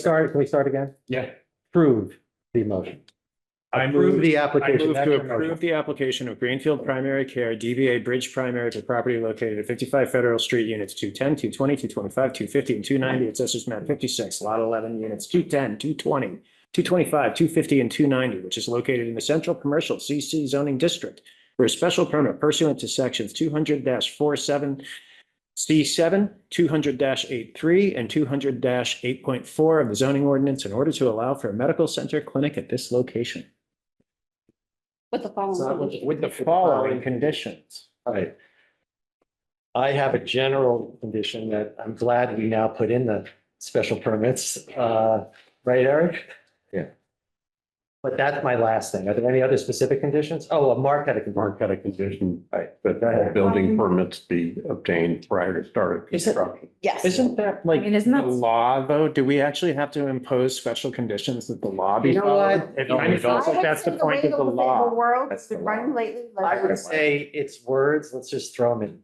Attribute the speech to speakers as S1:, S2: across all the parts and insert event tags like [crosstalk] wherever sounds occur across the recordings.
S1: Start, can we start again?
S2: Yeah.
S1: Approve the motion.
S2: I
S1: Approve
S2: move,
S1: the
S2: I
S1: application.
S2: move
S1: That's
S2: to
S1: your motion.
S2: approve the application of Greenfield Primary Care DBA Bridge Primary for property located at fifty-five Federal Street, units 210, 220, 225, 250, and two ninety, assessors map fifty-six, lot eleven, units 210, 220, 225, 250, and two ninety, which is located in the Central Commercial CC zoning district for a special permit pursuant to sections two hundred 47 C seven, two hundred 83 and two hundred eight point four of the zoning ordinance in order to allow for a medical center clinic at this location.
S3: With the following.
S2: With the following conditions.
S1: All right. I have a general condition that I'm glad we now put in the special permits, uh, right, Eric?
S4: Yeah.
S1: But that's my last thing. Are there any other specific conditions? Oh, Mark had a condition.
S4: Mark had a condition
S1: Right.
S4: that all building permits be obtained prior to start of
S2: Is it-
S4: construction.
S3: Yes.
S2: Isn't that like
S5: I mean,
S2: the
S5: isn't that-
S2: law, though? Do we actually have to impose special conditions that the law be
S1: You know
S2: followed?
S1: what?
S2: It kind of feels like that's the point of the law.
S3: world,
S4: That's
S3: the
S4: the
S3: run lately.
S1: I would say it's words. Let's just throw them in.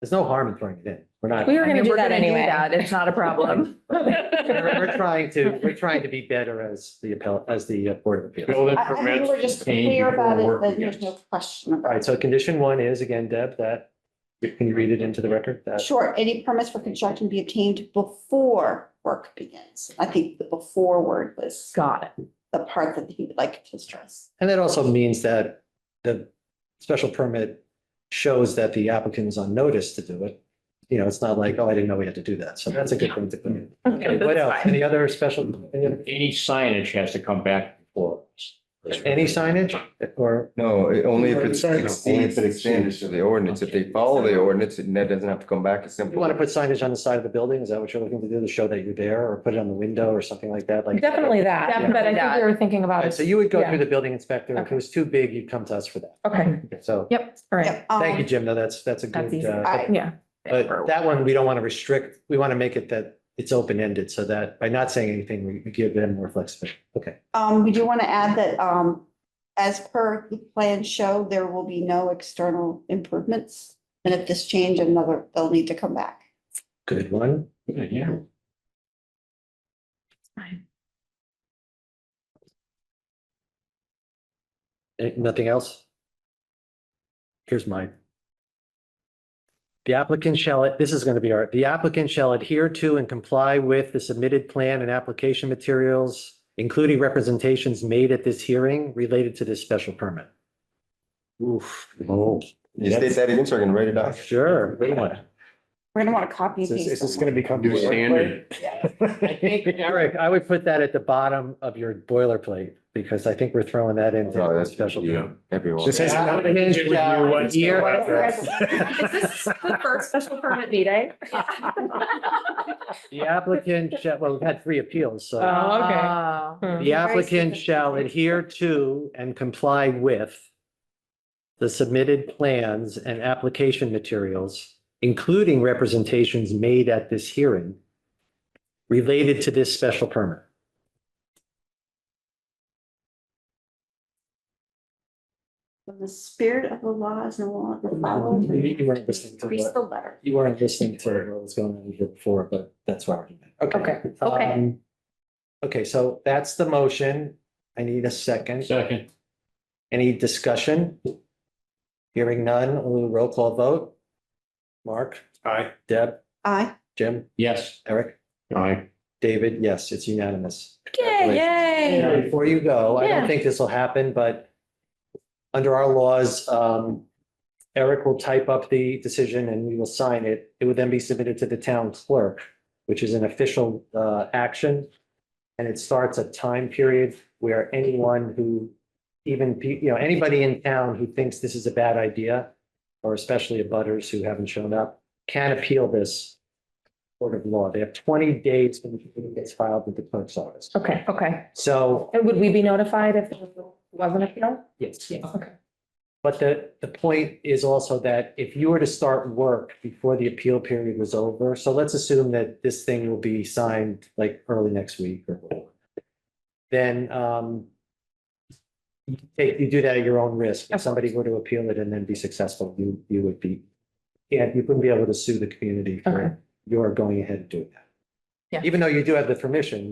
S1: There's no harm in throwing it in. We're not,
S5: We
S3: were
S5: were
S3: gonna
S5: gonna
S3: do
S5: do
S3: that
S5: that
S3: anyway.
S5: anyway. It's not a problem.
S1: we're we're trying to, we're trying to be better as the appellate, as the uh, Board of Appeals.
S4: Building
S3: I I think
S4: permits
S3: we're just
S4: obtained
S3: clear
S4: before
S3: about it,
S4: work
S3: that there's no
S4: begins.
S3: question
S1: All
S3: about
S1: right, so condition one is again, Deb, that, can you read it into the record?
S3: it.
S1: That-
S3: Sure, any permits for construction be obtained before work begins. I think the before word was
S5: [laughs] Got it.
S3: the part that he would like to stress.
S1: And that also means that the special permit shows that the applicant is on notice to do it. You know, it's not like, oh, I didn't know we had to do that. So that's a good thing to put in.
S5: [laughs] Okay,
S1: What else?
S5: [laughs] that's fine.
S1: Any other special, any other-
S6: Any signage has to come back before. us.
S1: any signage or,
S7: No, it- only if it's
S2: Sorry.
S7: exceeds the standards of the ordinance. If they follow the ordinance, it that doesn't have to come back. It's
S1: you
S7: simple.
S1: want to put signage on the side of the building? Is that what you're looking to do to show that you're there or put it on the window or something like that? Like.
S5: Definitely that.
S1: Yeah.
S5: But I think we were thinking
S1: All
S5: about it.
S1: right, So you would go
S5: Yeah.
S1: through the building inspector. If it
S5: Okay.
S1: was too big, you'd come to us for that.
S5: Okay.
S1: So
S5: Yep. All right.
S3: Yep,
S1: thank you,
S3: um,
S1: Jim. No, that's, that's a
S5: That's
S1: good,
S5: easy.
S1: uh,
S3: I-
S5: Yeah.
S1: But that one, we don't want to restrict, we want to make it that it's open-ended so that by not saying anything, we we give them more flexibility. Okay.
S3: Um, we do want to add that, um, as per the plan show, there will be no external improvements. And if this change, another, they'll need to come back.
S1: Good one.
S2: Yeah.
S1: Eh, Nothing else? Here's mine. The applicant shall, this is going to be our, the applicant shall adhere to and comply with the submitted plan and application materials, including representations made at this hearing related to this special permit. Oof.
S7: Oh. You state that again, so I can write it down.
S1: Sure. Good one.
S3: We're gonna want to copy
S2: Is
S3: and
S2: this,
S3: paste.
S2: is this
S3: them.
S2: gonna become?
S4: New standard.
S1: Eric, I would put that at the bottom of your boilerplate because I think we're throwing that into
S7: Oh,
S1: the
S7: that's
S1: special.
S7: special. Yeah, everyone.
S2: This has nothing to do with you
S5: [laughs] Is
S2: whatsoever.
S1: [laughs]
S5: this the first special permit meeting?
S1: The applicant shall, well, we've had three appeals, so
S5: Uh-huh. Oh, okay.
S1: the applicant shall adhere to and comply with the submitted plans and application materials, including representations made at this hearing related to this special permit.
S3: When the spirit of the law is no longer followed.
S1: You- you weren't listening to
S3: Increase
S1: what-
S3: the letter.
S1: You weren't listening to what was going on here before, but that's why we're doing it.
S5: Okay.
S3: Okay.
S1: Um, Okay, so that's the motion. I need a second.
S6: Second,
S1: Any discussion? Hearing none, we'll roll call vote. Mark,
S2: Aye.
S1: Deb,
S3: Aye.
S1: Jim,
S6: yes.
S1: Eric,
S6: Aye.
S1: David, yes, it's unanimous.
S5: Yay,
S1: Now,
S5: yay.
S1: Before you go, I don't
S5: Yeah.
S1: think this will happen, but under our laws, um, Eric will type up the decision and we will sign it. It would then be submitted to the town clerk, which is an official, uh, action. And it starts a time period where anyone who even, pe- you know, anybody in town who thinks this is a bad idea, or especially abutters who haven't shown up, can appeal this court of law. They have twenty days when it gets filed with the clerk's office.
S5: Okay, okay.
S1: So
S5: And would we be notified if it wasn't appeal?
S1: Yes.
S5: Okay.
S1: But the, the point is also that if you were to start work before the appeal period was over, so let's assume that this thing will be signed like early next week or whatever, then um you take, you do that at your own risk. If somebody were to appeal it and then be successful, you, you would be, yeah, you wouldn't be able to sue the community
S5: Okay.
S1: for your going ahead and doing that.
S5: Yeah.
S1: Even though you do have the permission,